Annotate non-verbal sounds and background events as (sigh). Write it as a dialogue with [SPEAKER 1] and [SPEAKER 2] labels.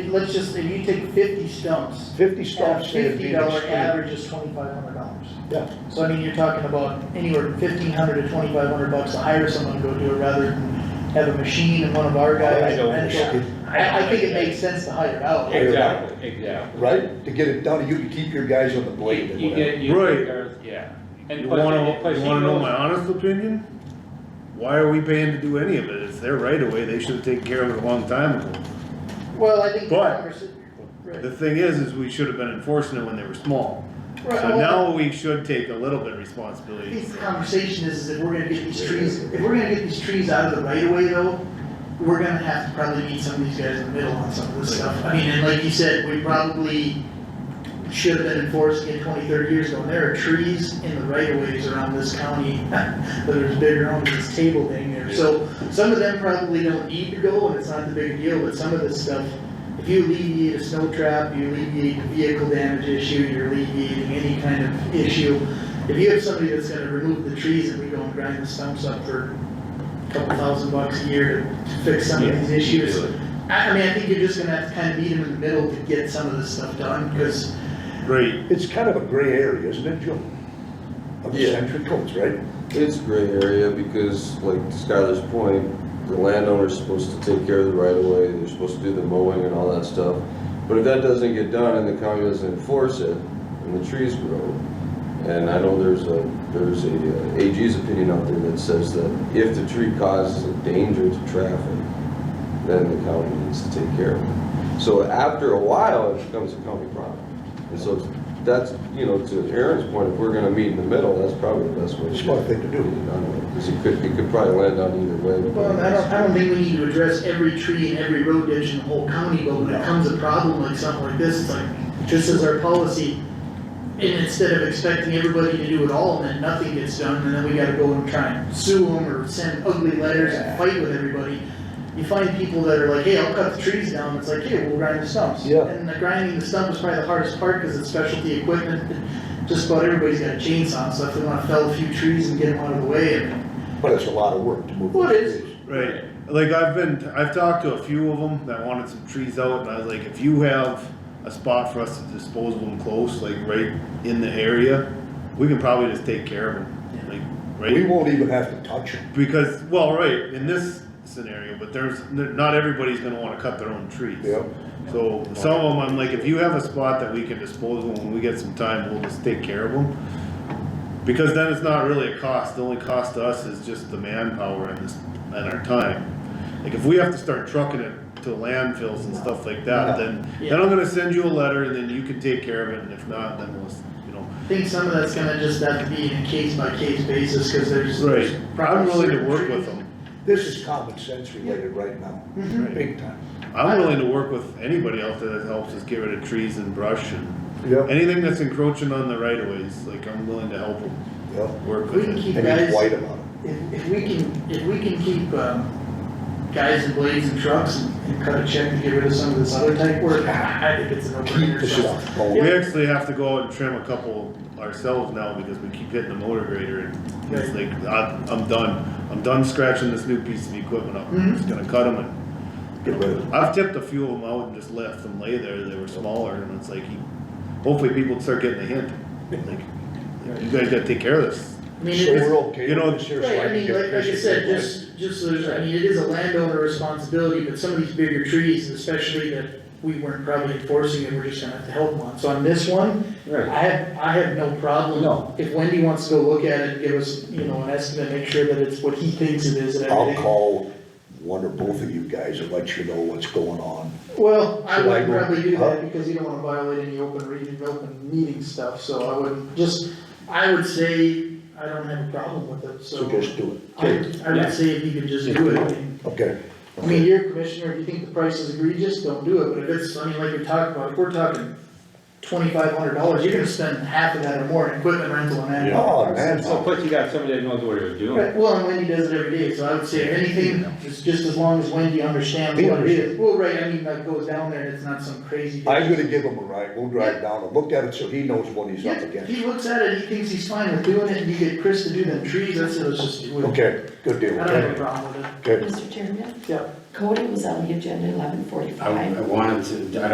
[SPEAKER 1] Let's just, if you take fifty stumps,
[SPEAKER 2] Fifty
[SPEAKER 1] at
[SPEAKER 2] stumps. they'd be
[SPEAKER 1] fifty dollar
[SPEAKER 2] extreme.
[SPEAKER 1] average is twenty-five hundred dollars.
[SPEAKER 2] Yeah.
[SPEAKER 1] So I mean, you're talking about anywhere from fifteen hundred to twenty-five hundred bucks to hire someone to go do it rather than have a machine and one of our guys.
[SPEAKER 3] I don't
[SPEAKER 1] and so-
[SPEAKER 3] understand.
[SPEAKER 1] I, I think it makes sense to hire out.
[SPEAKER 3] Exactly, exactly.
[SPEAKER 2] Right, to get it done, you can keep your guys on the blade and
[SPEAKER 3] You you
[SPEAKER 2] whatever.
[SPEAKER 3] get, you.
[SPEAKER 4] Right.
[SPEAKER 3] there's- Yeah. And
[SPEAKER 4] You
[SPEAKER 3] plus-
[SPEAKER 4] wanna,
[SPEAKER 3] plus
[SPEAKER 4] you
[SPEAKER 3] he
[SPEAKER 4] wanna know
[SPEAKER 3] knows-
[SPEAKER 4] my honest opinion? Why are we paying to do any of it? It's their right of way, they should've taken care of it a long time ago.
[SPEAKER 1] Well, I think. the
[SPEAKER 4] But-
[SPEAKER 1] conversa- right.
[SPEAKER 4] The thing is, is we should've been enforcing it when they were small.
[SPEAKER 1] Right,
[SPEAKER 4] So
[SPEAKER 1] well-
[SPEAKER 4] now we should take a little bit of
[SPEAKER 1] I
[SPEAKER 4] responsibility.
[SPEAKER 1] think the conversation is, is if we're gonna get these trees, if we're gonna get these trees out of the right of way though, we're gonna have to probably meet some of these guys in the middle on some of this stuff. I mean, and like you said, we probably should have been enforced in 20, 30 years ago. And there are trees in the right of ways around this county (laughs) that are as big around as this table dang there. So some of them probably don't need to go and it's not the big deal, but some of this stuff, if you alleviate a snow trap, you alleviate the vehicle damage issue, you're alleviating any kind of issue. If you have somebody that's gonna remove the trees and we go and grind the stumps up for a couple thousand bucks a year to fix some of these issues. I, I mean, I think you're just gonna have to kind of meet them in the middle to get some of this stuff done, cause,
[SPEAKER 4] Right,
[SPEAKER 2] It's kind of a gray area, isn't it, Joe? Of the
[SPEAKER 5] Yeah.
[SPEAKER 2] century codes, right?
[SPEAKER 5] It's gray area because like to Skylar's point, the landowner's supposed to take care of the right of way, they're supposed to do the mowing and all that stuff. But if that doesn't get done and the county doesn't enforce it, and the trees grow, and I know there's a, there's a uh, AG's opinion out there that says that if the tree causes a danger to traffic, then the county needs to take care of it. So after a while, it becomes a county problem. And so that's, you know, to Aaron's point, if we're gonna meet in the middle, that's probably the best way. to do it.
[SPEAKER 2] Smart thing to do.
[SPEAKER 5] Because it could, it could probably land on either way.
[SPEAKER 1] well, I don't, I don't think we need to address every tree and every road ditch in the whole county, but when it comes a problem like something like this, it's like, this is our policy. And instead of expecting everybody to do it all and then nothing gets done, and then we gotta go and try and sue them or send ugly letters and fight with everybody. You find people that are like, hey, I'll cut the trees down, it's like, hey, we'll grind the stumps.
[SPEAKER 2] Yeah.
[SPEAKER 1] And the grinding the stump is probably the hardest part, cause it's specialty equipment, just about everybody's got a chainsaw and stuff, they wanna fell a few trees and get them out of the way, and
[SPEAKER 2] But it's a lot of work to move.
[SPEAKER 1] Well,
[SPEAKER 2] those
[SPEAKER 1] it is.
[SPEAKER 2] trees.
[SPEAKER 4] right. Like I've been, I've talked to a few of them that wanted some trees out and I was like, if you have a spot for us to dispose of them close, like right in the area, we can probably just take care of them, like, right?
[SPEAKER 2] We won't even have to touch them.
[SPEAKER 4] Because, well, right, in this scenario, but there's, not everybody's gonna wanna cut their own trees.
[SPEAKER 2] Yep.
[SPEAKER 4] So, some of them, I'm like, if you have a spot that we can dispose of, when we get some time, we'll just take care of them. Because then it's not really a cost, the only cost to us is just the manpower and this, and our time. Like, if we have to start trucking it to landfills and stuff like that, then, then I'm gonna send you a letter, and then you can take care of it, and if not, then we'll, you know,
[SPEAKER 1] I think some of that's gonna just have to be in a case by case basis, cause there's.
[SPEAKER 4] right,
[SPEAKER 1] there's
[SPEAKER 4] I'm
[SPEAKER 1] probably
[SPEAKER 4] willing to
[SPEAKER 1] certain
[SPEAKER 4] work with
[SPEAKER 1] trees-
[SPEAKER 4] them.
[SPEAKER 2] This is common sense related right now,
[SPEAKER 1] Mhm.
[SPEAKER 4] Right.
[SPEAKER 2] big time.
[SPEAKER 4] I'm willing to work with anybody out there that helps us get rid of trees and brush and
[SPEAKER 2] Yep,
[SPEAKER 4] anything that's encroaching on the right of ways, like I'm willing to help them
[SPEAKER 2] yep.
[SPEAKER 4] work
[SPEAKER 1] If we
[SPEAKER 4] with
[SPEAKER 1] can
[SPEAKER 4] it.
[SPEAKER 1] keep
[SPEAKER 2] And he's
[SPEAKER 1] guys,
[SPEAKER 2] white about it.
[SPEAKER 1] if, if we can, if we can keep, um, guys in blades and trucks and and cut a check to get rid of some of this other type work, I I think it's an
[SPEAKER 2] Keep the
[SPEAKER 1] over.
[SPEAKER 2] stuff
[SPEAKER 4] We
[SPEAKER 2] going.
[SPEAKER 4] actually have to go out and trim a couple ourselves now because we keep hitting the motor grader and it's like, I'm, I'm done. I'm done scratching this new piece of equipment up, I'm just gonna cut them and.
[SPEAKER 2] Get rid of it.
[SPEAKER 4] I've tipped a few of them out and just left them lay there, they were smaller and it's like, you- hopefully people start getting the hint. Like, you guys gotta take care of this.
[SPEAKER 1] I mean,
[SPEAKER 2] So
[SPEAKER 1] it
[SPEAKER 2] we're
[SPEAKER 1] is,
[SPEAKER 2] okay
[SPEAKER 4] you know,
[SPEAKER 2] with this here, so
[SPEAKER 1] right, I
[SPEAKER 2] can
[SPEAKER 1] mean,
[SPEAKER 2] get
[SPEAKER 1] like, like I
[SPEAKER 2] pictures
[SPEAKER 1] said,
[SPEAKER 2] of it.
[SPEAKER 1] just, just, there's- I mean, it is a landowner responsibility, but some of these bigger trees, especially that we weren't probably enforcing it, we're just gonna have to help them on. So on this one,
[SPEAKER 3] Right.
[SPEAKER 1] I have, I have no problem.
[SPEAKER 3] No.
[SPEAKER 1] If Wendy wants to go look at it and give us, you know, an estimate, make sure that it's what he thinks it is and
[SPEAKER 2] I'll
[SPEAKER 1] everything.
[SPEAKER 2] call one or both of you guys and let you know what's going on.
[SPEAKER 1] Well, I
[SPEAKER 2] Should I
[SPEAKER 1] would
[SPEAKER 2] go-
[SPEAKER 1] probably do
[SPEAKER 2] Huh?
[SPEAKER 1] that because you don't wanna violate any open reading, open meeting stuff, so I would just, I would say, I don't have a problem with it, so.
[SPEAKER 2] So just do
[SPEAKER 1] I,
[SPEAKER 2] it.
[SPEAKER 1] I would say if you could just do it, I mean,
[SPEAKER 2] Okay.
[SPEAKER 1] I mean, you're a commissioner, if you think the price is egregious, don't do it, but if it's, I mean, like we talked about, if we're talking twenty-five hundred dollars, you're gonna spend half of that or more in equipment rental and that.
[SPEAKER 2] Oh, man.
[SPEAKER 3] So plus you got somebody that knows what they're doing.
[SPEAKER 1] Right, well, and Wendy does it every day, so I would say if anything, just, just as long as Wendy understands
[SPEAKER 2] He
[SPEAKER 1] what it is. Well, right, I mean, that goes down there, and it's not some crazy.
[SPEAKER 2] I'm gonna give him a ride, we'll drive down and look at it so he knows what he's up
[SPEAKER 1] Yeah,
[SPEAKER 2] against.
[SPEAKER 1] he looks at it, he thinks he's fine with doing it, and you get Chris to do them trees, that's, it, let's just do it.
[SPEAKER 2] Okay, good
[SPEAKER 1] I
[SPEAKER 2] deal,
[SPEAKER 1] don't have a
[SPEAKER 2] okay,
[SPEAKER 1] problem with it,
[SPEAKER 2] okay.
[SPEAKER 6] Mr. Chairman,
[SPEAKER 1] yeah.
[SPEAKER 6] Cody was on the agenda at eleven
[SPEAKER 7] I, I
[SPEAKER 6] forty-five.
[SPEAKER 7] wanted to, I don't